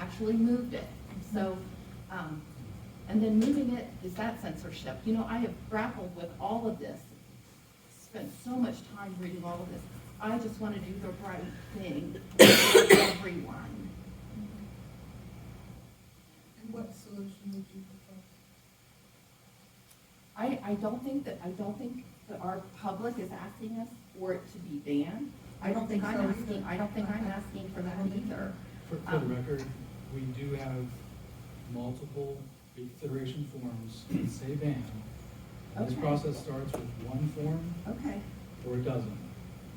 actually moved it. So, um, and then moving it, is that censorship? You know, I have grappled with all of this, spent so much time reading all of this. I just want to do the right thing for everyone. And what solution would you propose? I, I don't think that, I don't think that our public is asking us for it to be banned. I don't think I'm So either. asking, I don't think I'm asking for that either. For, for the record, we do have multiple reconsideration forms that say ban. And This Okay. process starts with one form Okay. or it doesn't.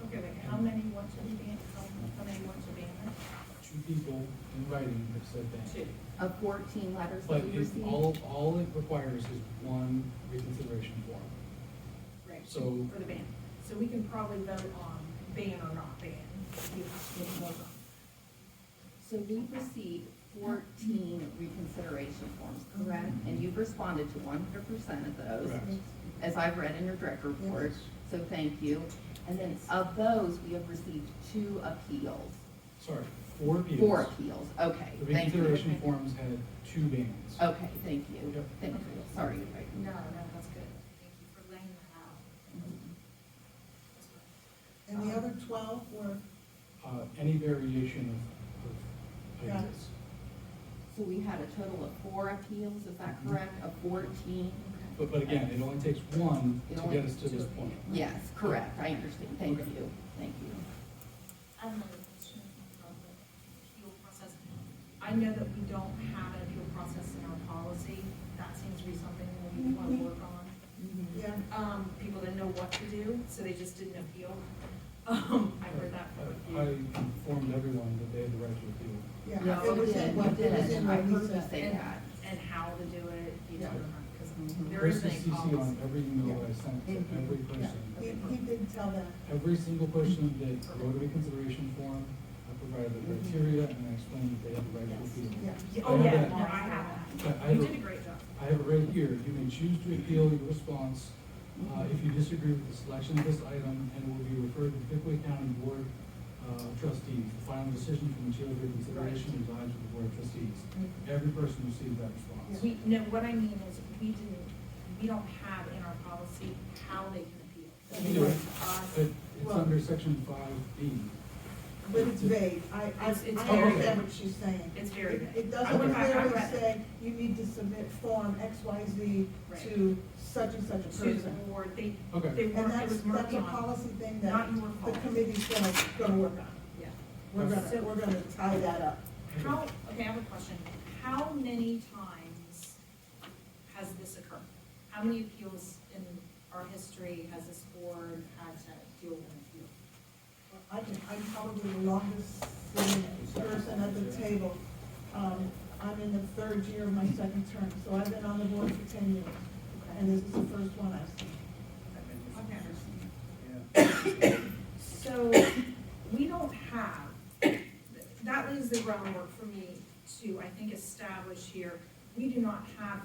Okay, wait, how many want to be banned, how, how many want to be banned? Two people in writing have said ban. Two. Of fourteen letters But that we it, received. all, all it requires is one reconsideration form. Right. So- For the ban. So we can probably vote on ban or not ban. You have to vote on. So we've received fourteen reconsideration forms, correct? And you've responded to one hundred percent of those, Mm-hmm. Correct. as I've read in your direct report, so thank you. And then of those, we have received two appeals, Sorry, four appeals. four appeals, okay, The thank you. reconsideration forms had two bans. Okay, thank you, Yep. thank you, sorry. Rebecca. No, no, that's good. Thank you for laying that out. That's good. And the other twelve were, Uh, any variation of, of Got it. ideas. So we had a total of four appeals, is Mm-hmm. that correct, of fourteen? But, but again, it only takes one It to only get us takes to this point. Yes, correct, I understand, thank Okay. you, thank you. I have another question about the appeal process. I know that we don't have an appeal process in our policy. That seems to be something that we want to work on. Mm-hmm. yeah, Um, people didn't know what to do, so they just didn't appeal. Um, I heard that from I I a few. informed everyone that they had the right to appeal. yeah. No, oh, It was did, in what, it it was did. in I what heard he you said. say And- that. And how to do it, you Yeah. don't remember, because Mhm. there is Chris a is CC on policy. every email that I sent to Mhm. every Yeah. He, person. he did tell that. Every single person that wrote a reconsideration form, I provided the criteria and I explained that they had the right to appeal. Yeah. Mm-hmm. Yeah, I Oh, yeah, have no, that. I have Yeah, I that. have You a- did a great job. I have it right here. You may choose to appeal your response uh, Mm-hmm. if you disagree with the selection of this item and it will be referred to the Pickaway County Board uh, of Trustees. The final decision for material reconsideration resides with the Board of Trustees. Mm-hmm. Every person received that response. We, no, what I mean is, we didn't, we don't have in our policy how they can appeal. We So they do. went to us. But it's Well- under section five B. But it's vague. I, I, I It's- it's very understand vague. what she's saying. It's very It- vague. It I doesn't went back- I clearly read it. say you need to submit form X, Y, Z Right. to such and such a to the person. board, they, Okay. they And weren't, it that's, was that's murky a on. policy thing Not that your the fault. committee's gonna, gonna work on. Yeah. We're So- gonna, we're gonna tie that up. How, okay, I have a question. How many times has this occurred? How many appeals in our history has this board had to deal with an appeal? I can, I'm probably the longest sitting person at the table. Um, I'm in the third year of my second term, so I've been on the board for ten years. And this is the first one I've seen. Okay. So, we don't have, that leaves the groundwork for me to, I think, establish here, we do not have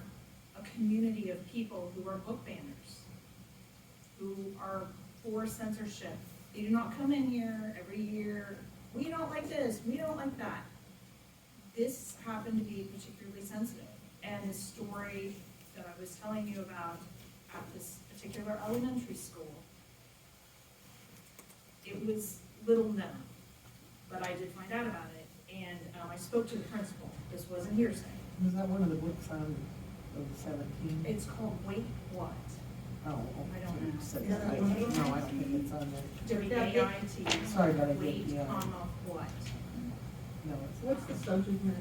a community of people who are book banners, who are for censorship. They do not come in here every year, we don't like this, we don't like that. This happened to be particularly sensitive, and the story that I was telling you about at this particular elementary school it was little known, but I did find out about it, and um, I spoke to the principal, this wasn't hearsay. Was that one of the books on, of seventeen? It's called Wait What, Oh, okay. I don't know. You said Yeah, that. that No, was- I don't think it's on there. W A I T. Sorry about it, Wait, yeah. comma, what. No, it's. What's the subject matter?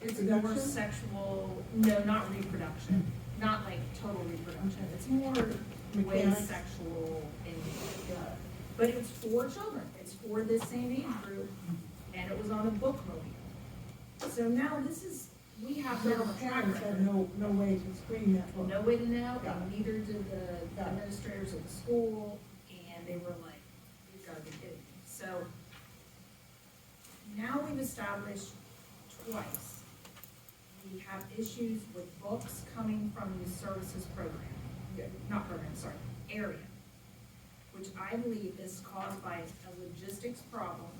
It's Reproduction? more sexual, no, not reproduction, not like total reproduction, it's more way Mechanics? sexual and, uh, but it's for children, it's for this same age group, and it was on a book movie. So now this is, we have now The a track parents record. have no, no way to screen that book. no way to know, Got and neither did the Got it. administrators of the school, and they were like, you've gotta be kidding me. So now we've established twice, we have issues with books coming from the services program, not program, sorry, area, which I believe is caused by a logistics problem